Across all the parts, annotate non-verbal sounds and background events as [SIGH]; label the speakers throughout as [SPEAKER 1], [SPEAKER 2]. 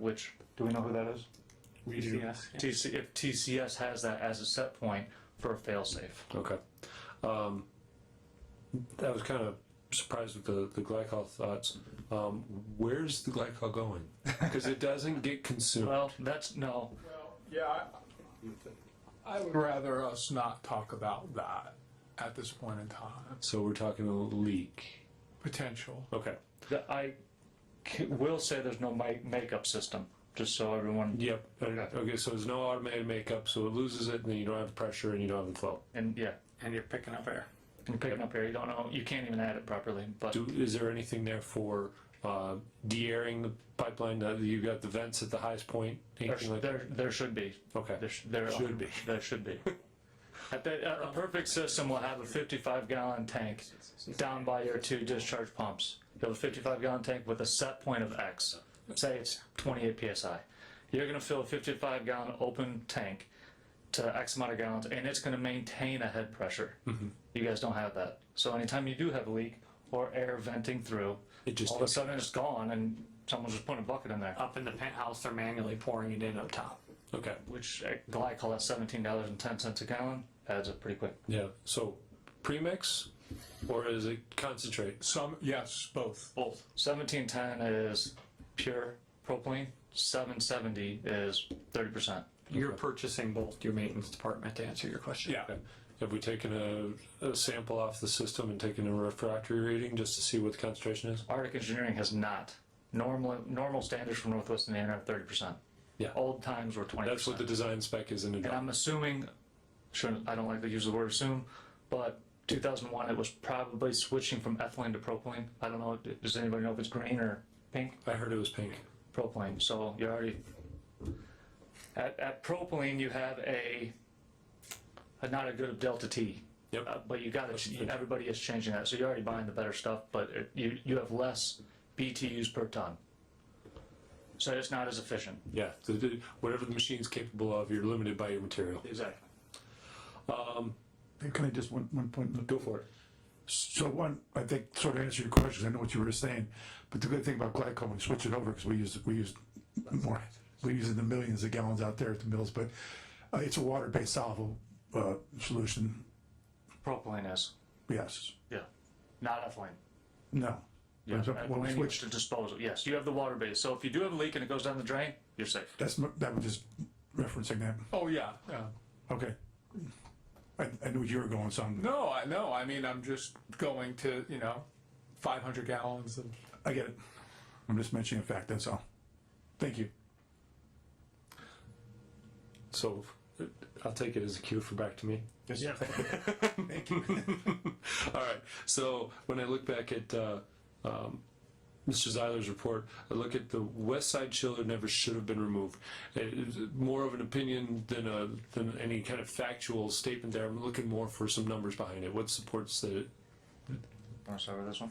[SPEAKER 1] which
[SPEAKER 2] Do we know who that is?
[SPEAKER 3] We do.
[SPEAKER 1] TCS, TC, if TCS has that as a set point for a failsafe.
[SPEAKER 3] Okay. Um, I was kind of surprised with the, the glycol thoughts. Um, where's the glycol going? Because it doesn't get consumed.
[SPEAKER 1] Well, that's no.
[SPEAKER 4] Yeah, I I would rather us not talk about that at this point in time.
[SPEAKER 3] So we're talking a leak.
[SPEAKER 4] Potential.
[SPEAKER 3] Okay.
[SPEAKER 1] The- I c- will say there's no make, makeup system, just so everyone.
[SPEAKER 3] Yep. Okay.
[SPEAKER 1] Okay.
[SPEAKER 3] So there's no automated makeup. So it loses it, and then you don't have the pressure, and you don't have the flow.
[SPEAKER 1] And yeah,
[SPEAKER 5] and you're picking up air.
[SPEAKER 1] you're picking up air. You don't know. You can't even add it properly. But
[SPEAKER 3] Do, is there anything there for uh, de-airing the pipeline? That you got the vents at the highest point.
[SPEAKER 1] there,
[SPEAKER 3] Anything
[SPEAKER 1] sh-
[SPEAKER 3] like
[SPEAKER 1] there, there should be. There,
[SPEAKER 3] Okay.
[SPEAKER 1] sh- there
[SPEAKER 3] Should be.
[SPEAKER 1] There should be. At the, a a perfect system will have a 55 gallon tank down by your two discharge pumps. You have a 55 gallon tank with a set point of X. Say it's 28 psi. You're going to fill a 55 gallon open tank to X amount of gallons, and it's going to maintain a head pressure.
[SPEAKER 3] Mm-hmm.
[SPEAKER 1] You guys don't have that. So anytime you do have a leak or air venting through,
[SPEAKER 3] It just-
[SPEAKER 1] all of a sudden it's gone, and someone's just putting a bucket in there.
[SPEAKER 5] Up in the penthouse, they're manually pouring it in up top.
[SPEAKER 3] Okay.
[SPEAKER 1] which uh, glycol at seventeen dollars and ten cents a gallon adds up pretty quick.
[SPEAKER 3] Yeah. So premix, or is it concentrate?
[SPEAKER 4] Some, yes, both.
[SPEAKER 1] Both. Seventeen ten is pure propylene. Seven seventy is thirty percent.
[SPEAKER 5] You're purchasing both your maintenance department to answer your question.
[SPEAKER 4] Yeah.
[SPEAKER 3] Have we taken a, a sample off the system and taken a refractory reading just to see what the concentration is?
[SPEAKER 1] Arctic Engineering has not. Normal normal standards from Northwest Indiana are thirty percent.
[SPEAKER 3] Yeah.
[SPEAKER 1] Old times were twenty.
[SPEAKER 3] That's what the design spec is in the
[SPEAKER 1] And
[SPEAKER 3] doc.
[SPEAKER 1] I'm assuming, shouldn't I don't like to use the word assume, but 2001 it was probably switching from ethylene to propylene. I don't know. Does anybody know if it's green or pink?
[SPEAKER 3] I heard it was pink.
[SPEAKER 1] propylene, so you're already, at, at propylene, you have a, a not a good delta T.
[SPEAKER 3] Yep.
[SPEAKER 1] Uh, But you gotta, ch- everybody is changing that, so you're already buying the better stuff, but it- you, you have less BTUs per ton. So it's not as efficient.
[SPEAKER 3] Yeah. The- the- Whatever the machine's capable of, you're limited by your material.
[SPEAKER 1] Exactly.
[SPEAKER 6] Can I just one, one point?
[SPEAKER 3] Go for it.
[SPEAKER 6] So one, I think sort of answer your question, 'cause I know what you were saying, but the good thing about glycol, when we switch it over, because we use, we use more, we use it in the millions of gallons out there at the mills, but uh, it's a water-based soluble, uh, solution,
[SPEAKER 1] Propylene is,
[SPEAKER 6] yes,
[SPEAKER 1] yeah, not ethylene.
[SPEAKER 6] no.
[SPEAKER 1] Yeah,
[SPEAKER 6] So When we
[SPEAKER 1] ethylene used
[SPEAKER 6] switch,
[SPEAKER 1] to disposal, yes, you have the water base, so if you do have a leak and it goes down the drain, you're safe.
[SPEAKER 6] that's, m- that was just referencing that,
[SPEAKER 4] Oh, yeah, yeah.
[SPEAKER 6] okay. I, I knew you were going, so I'm-
[SPEAKER 4] No, I know, I mean, I'm just going to, you know, five hundred gallons of,
[SPEAKER 6] I get it, I'm just mentioning a fact, that's all, thank you.
[SPEAKER 3] So uh, I'll take it as a cue for back to me.
[SPEAKER 6] Yeah.
[SPEAKER 3] [LAUGHS] All right. So when I look back at uh, um, Mr. Zeiler's report, I look at the west side chiller never should have been removed. It is more of an opinion than a than any kind of factual statement there. I'm looking more for some numbers behind it. What supports that? It,
[SPEAKER 1] Wanna start with this one?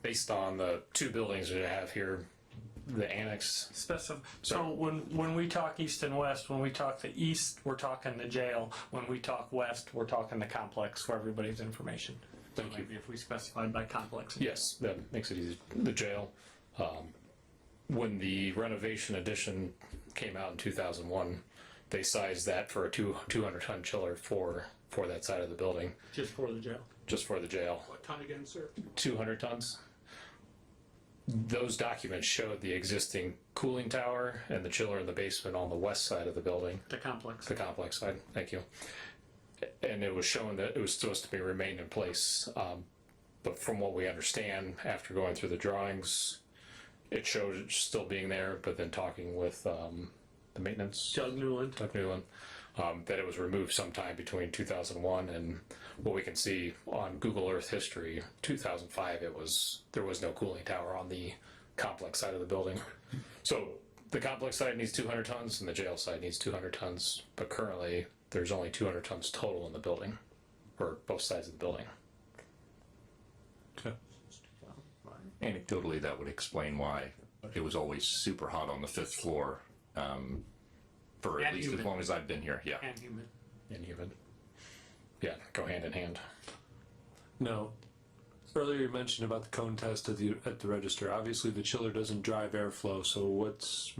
[SPEAKER 7] based on the two buildings that I have here, the annex.
[SPEAKER 5] Specif- so when, when we talk east and west, when we talk the east, we're talking the jail. When we talk west, we're talking the complex for everybody's information.
[SPEAKER 3] thank you.
[SPEAKER 5] If we specified by complex.
[SPEAKER 7] Yes, that makes it easy. The jail. Um, when the renovation addition came out in 2001, they sized that for a two 200 ton chiller for for that side of the building,
[SPEAKER 5] Just for the jail.
[SPEAKER 7] just for the jail.
[SPEAKER 5] What ton again, sir?
[SPEAKER 7] 200 tons. Those documents showed the existing cooling tower and the chiller in the basement on the west side of the building.
[SPEAKER 5] The complex.
[SPEAKER 7] the complex side. Thank you. And it was shown that it was supposed to be remained in place. Um, but from what we understand, after going through the drawings, it showed it still being there. But then talking with um, the maintenance,
[SPEAKER 5] Doug Newland.
[SPEAKER 7] Doug Newland, um, that it was removed sometime between 2001 and what we can see on Google Earth history, 2005. It was there was no cooling tower on the complex side of the building. So the complex side needs 200 tons and the jail side needs 200 tons, but currently there's only 200 tons total in the building, or both sides of the building.
[SPEAKER 8] anecdotally, that would explain why it was always super hot on the fifth floor um, for at
[SPEAKER 5] And
[SPEAKER 8] least as
[SPEAKER 5] humid.
[SPEAKER 8] long as I've been here. Yeah.
[SPEAKER 5] And human.
[SPEAKER 7] And human. Yeah, go hand in hand.
[SPEAKER 3] No. Earlier you mentioned about the cone test at the at the register. Obviously, the chiller doesn't drive airflow. So what's